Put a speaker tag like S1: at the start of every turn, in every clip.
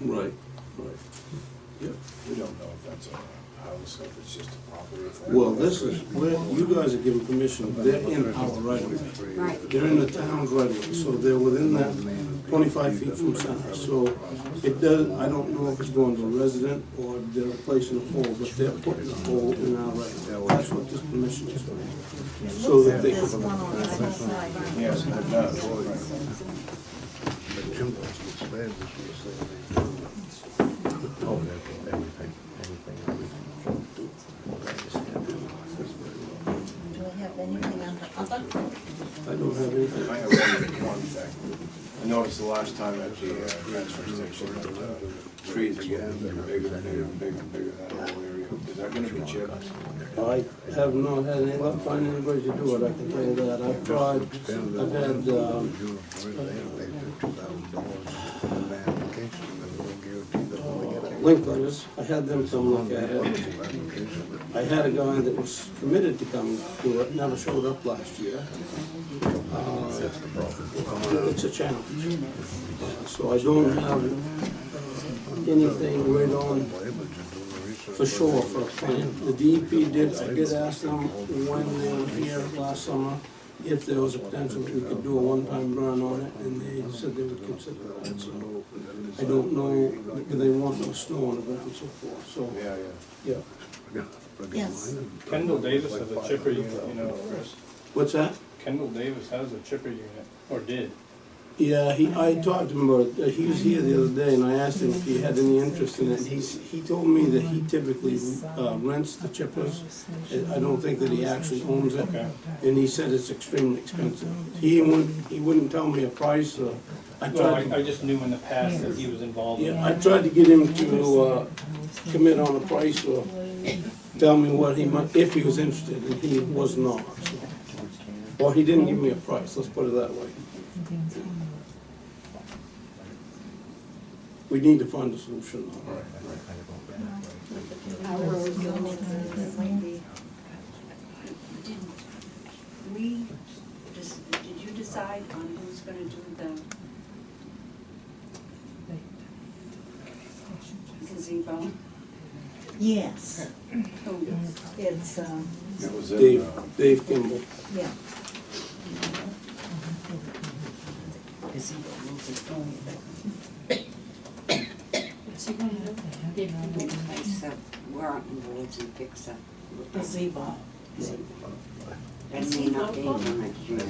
S1: Right, right. Yep.
S2: We don't know if that's a house, if it's just a property. if they're-
S1: Well, this is, where you guys are giving permission, they're in our right of way.
S3: Right.
S1: They're in the town's right of way, so they're within that twenty-five feet from center. So it does, I don't know if it's going to resident or they're placing a hole, but they're putting a hole in our right of way. That's what this permission is for. So that they,
S3: There's one on the other side.
S2: Yes, it does, right.
S3: Do we have anything under other?
S1: I don't have anything.
S2: I have one, one thing. I noticed the last time at the uh, transfer station, that uh, trees were getting bigger and bigger and bigger and bigger, that whole area. Is that gonna be chipped?
S1: I have not had any luck finding anybody to do it, I can tell you that. I've tried, I've had, um, link letters, I had them come look at it. I had a guy that was committed to come do it, never showed up last year. Uh, It's a challenge. Uh, So I don't have uh, anything right on for sure for a plan. The DEP did, I did ask them when they were here last summer, if there was a potential that we could do a one-time run on it, and they said they would consider that, so. I don't know, do they want no snow on the ground and so forth, so,
S2: Yeah, yeah.
S1: yeah.
S3: Yes.
S4: Kendall Davis has a chipper unit, you know, Chris.
S1: What's that?
S4: Kendall Davis has a chipper unit, or did.
S1: Yeah, he, I talked to him about it, Uh, he was here the other day, and I asked him if he had any interest in it, he's, he told me that he typically uh, rents the chippers. I- I don't think that he actually owns it,
S4: Okay.
S1: and he said it's extremely expensive. He wouldn't, he wouldn't tell me a price, so I
S4: Well, I,
S1: tried,
S4: I
S1: to-
S4: just knew in the past that he was involved in
S1: yeah, I
S4: it.
S1: tried to get him to, uh, commit on a price or tell me what he might, if he was interested, and he was not, so. Or he didn't give me a price, let's put it that way. We need to find a solution, though.
S2: Right, right.
S3: Our road units is Wendy.
S5: Did we, dis- did you decide on who's gonna do the gazebo?
S3: Yes,
S5: Who?
S3: it's, um,
S2: It was in,
S1: Dave,
S2: uh,
S1: Dave Kimball.
S3: yeah.
S5: Place up, we're out in the woods and fix up.
S3: Gazebo.
S5: That may not be in my dream.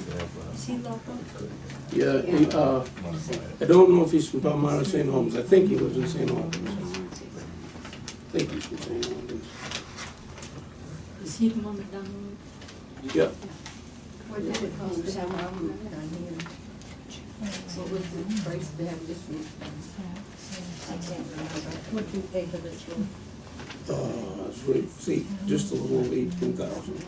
S5: Is he local?
S1: Yeah, he, uh, I don't know if he's from Palmyra, or St. Holmes, I think he lives in St. Holmes, I think he's from St. Holmes.
S6: Is he the one that done?
S1: Yeah,
S5: What did it cost to have one?
S6: What was the price to have this one?
S3: I can't remember. What do you pay for this road?
S1: uh, it's right, see, just a little over eighteen thousand.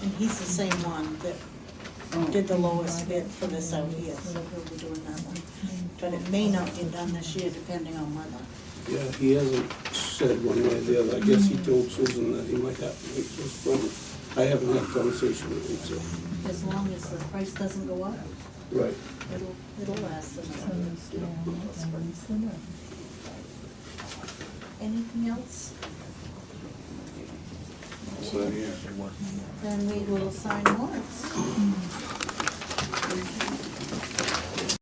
S3: And he's the same one that did the lowest bid for this out here, so Mm-hmm. he'll be Oh. doing that one. But it may not be done this year, depending on weather.
S1: Yeah, he hasn't said one way or the other, I guess he told Susan that he might have to wait for his permit. I haven't had a conversation with him, so.
S3: As long as the price doesn't go up,
S1: Right.
S3: it'll, it'll last another. Anything else?
S2: so, yeah.
S3: Then we will sign warrants.